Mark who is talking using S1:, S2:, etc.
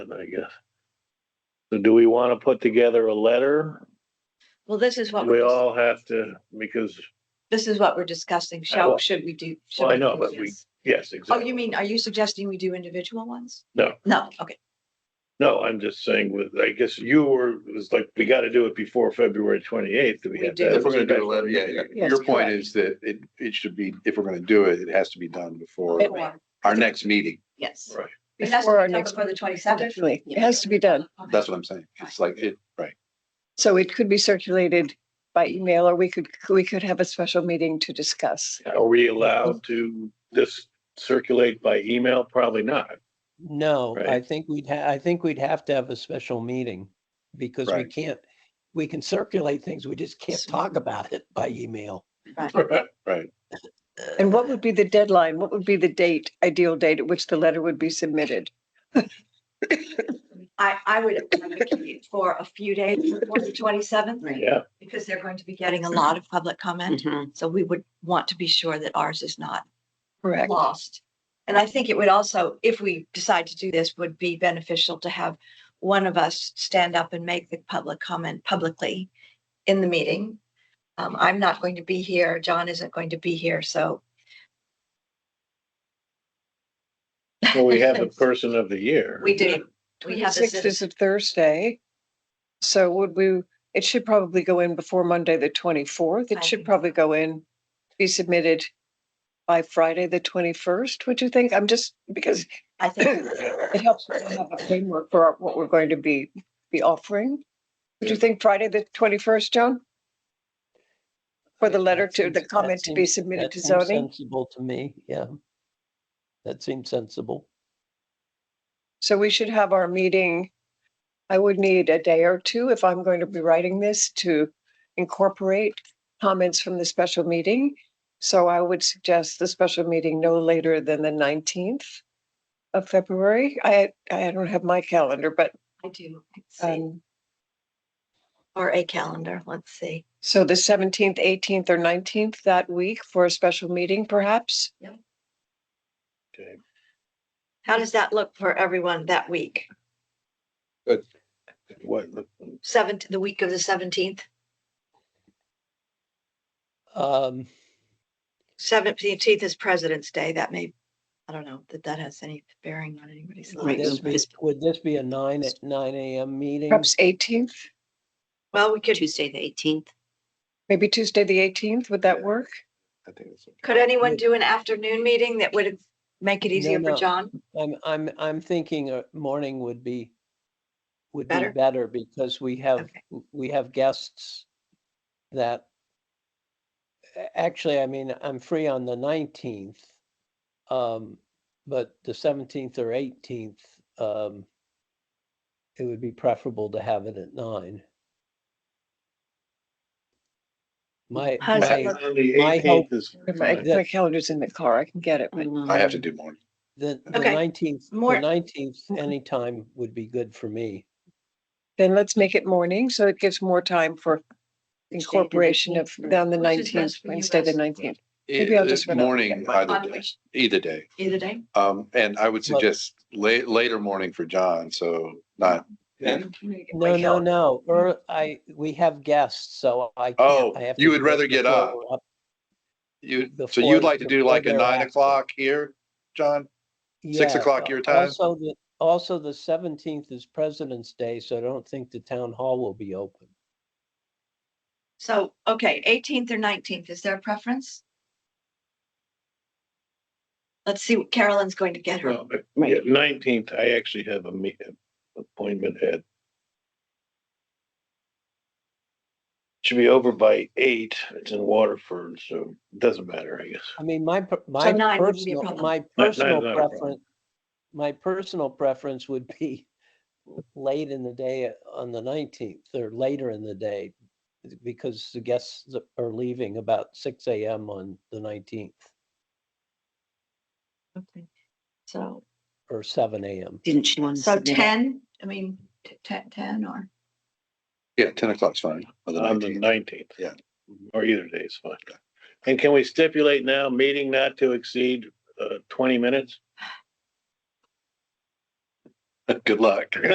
S1: I guess. So do we want to put together a letter?
S2: Well, this is what,
S1: We
S2: we're dis-
S1: all have to, because,
S2: this is what we're discussing.
S1: well-
S2: Shall, should we do? should
S1: well, Oh, I
S2: we
S1: know,
S2: do
S1: but we,
S2: this?
S1: yes,
S2: Oh,
S1: exactly.
S2: you mean, are you suggesting we do individual ones?
S1: No.
S2: No, okay.
S1: No, I'm just saying with, I guess you were, it was like, we gotta do it before February twenty-eighth.
S2: We do.
S3: If we're gonna do a letter, yeah, yeah.
S2: Yes,
S3: your point
S2: correct.
S3: is that it, it should be, if we're gonna do it, it has to be done before
S2: Before,
S3: our next meeting.
S2: yes.
S1: Right.
S2: It has
S4: Before our
S2: to be done
S4: next
S2: before the twenty seventh.
S4: Definitely, it has to be done.
S3: That's what I'm saying. It's like, it, right.
S4: So it could be circulated by email or we could, we could have a special meeting to discuss.
S1: Are we allowed to just circulate by email? Probably not.
S5: No,
S1: Right.
S5: I think we'd ha, I think we'd have to have a special meeting because we
S3: Right.
S5: can't, we can circulate things, we just can't
S2: Yes.
S5: talk about it by email.
S3: Right.
S4: And what would be the deadline? What would be the date, ideal date at which the letter would be submitted?
S2: I, I would advocate for a few days before the twenty seventh.
S1: Yeah.
S2: Because they're going to be getting a lot of public comment. So we would want to be sure that ours is not
S4: Correct.
S2: lost. And I think it would also, if we decide to do this, would be beneficial to have one of us stand up and make the public comment publicly in the meeting. Um, I'm not going to be here, John isn't going to be here, so
S1: Well, we have the person of the year.
S2: we do, we have this,
S4: Sixth
S2: in-
S4: is a Thursday. So would we, it should probably go in before Monday, the twenty-fourth.
S2: I
S4: It should
S2: think
S4: probably go in, be submitted by Friday, the twenty-first, would you think? I'm just, because
S2: I think,
S4: It helps us to have a framework for our- what we're going to be, be offering. Would you think Friday, the twenty-first, Joan? For the
S5: That-
S4: letter
S5: that
S4: to, the
S5: seems- that
S4: comment to be
S5: seems-
S4: submitted
S5: that
S4: to
S5: seems
S4: zoning?
S5: Sensible to me, yeah. That seems sensible.
S4: So we should have our meeting. I would need a day or two if I'm going to be writing this to incorporate comments from the special meeting. So I would suggest the special meeting no later than the nineteenth of February. I, I don't have my calendar, but,
S2: I do, let's see,
S4: um,
S2: or a calendar, let's see.
S4: So the seventeenth, eighteenth, or nineteenth that week for a special meeting, perhaps?
S1: Okay.
S2: How does that look for everyone that week?
S1: What,
S2: Seventh, the week of the seventeenth,
S5: Um,
S2: seventeenth is President's Day, that may, I don't know, that that has any bearing on anybody's
S5: would
S2: lives.
S5: this be, would this be a nine at nine AM meeting?
S4: Perhaps
S2: Mm.
S4: eighteenth,
S2: Well, we could,
S6: Tuesday, the eighteenth.
S4: maybe Tuesday, the eighteenth, would that work?
S3: I think it's.
S2: could anyone do an afternoon meeting that would make it easier for
S5: no.
S2: John?
S5: I'm, I'm, I'm thinking a morning would be, would be
S2: Better?
S5: better because we have,
S2: Okay.
S5: w- we have guests that a- actually, I mean, I'm free on the nineteenth. Um, but the seventeenth or eighteenth, um, it would be preferable to have it at nine. My,
S2: How's that
S5: my,
S2: look?
S1: on the
S5: My hope-
S1: eighteenth is.
S4: If
S2: Mm,
S4: I-
S5: Yeah.
S4: My calendar's in the car, I can get it, but
S3: I have to do more.
S5: the
S2: Okay.
S5: nineteenth, the
S2: More- Mm-hmm.
S5: nineteenth, anytime would be good for me.
S4: then let's make it morning, so it gives more time for incorporation of, on the
S2: Which is
S4: nineteenth,
S2: best for you
S4: Wednesday, the
S2: guys?
S4: nineteenth. Maybe I'll just
S3: It-
S4: run out.
S3: Morning,
S2: On
S3: either day,
S2: which-
S3: either day.
S2: Either day?
S3: Um, and I would
S5: Well-
S3: suggest late, later morning for John, so not.
S5: No, no, no,
S2: Mm-hmm.
S5: or I, we have guests, so I. can't-
S3: Oh,
S5: I have
S3: you
S5: to
S3: would
S5: do it
S3: rather get
S5: before
S3: up.
S5: we're
S3: You, so
S5: Before-
S3: you'd like to do
S5: before
S3: like a
S5: they're
S3: nine
S5: active.
S3: o'clock here, John? Six
S5: Yeah,
S3: o'clock
S5: uh,
S3: your time?
S5: Also, the, also the seventeenth is President's Day, so I don't think the town hall will be open.
S2: So, okay, eighteenth or nineteenth, is there a preference? Let's see what Carolyn's going to get her.
S6: Right.
S1: Nineteenth, I actually have a meet, appointment at. Should be over by eight. It's in Waterford, so it doesn't matter, I guess.
S5: I mean, my, per- my
S2: nine wouldn't be a
S5: personal,
S2: problem.
S5: my
S1: nine is
S5: personal
S1: not a problem.
S5: preference, my personal preference would be late in the day on the nineteenth or later in the day because the guests that are leaving about six AM on the nineteenth
S2: Okay. So,
S5: or seven AM.
S6: Didn't she want to?
S2: so
S6: submit it?
S2: ten, I mean, t- ten, ten or?
S3: Yeah, ten o'clock's fine. on the
S1: On the
S3: 19th.
S1: nineteenth. Mm-hmm.
S3: Yeah.
S1: Or either day is fine. And can we stipulate now, meeting not to exceed uh twenty minutes? Good luck.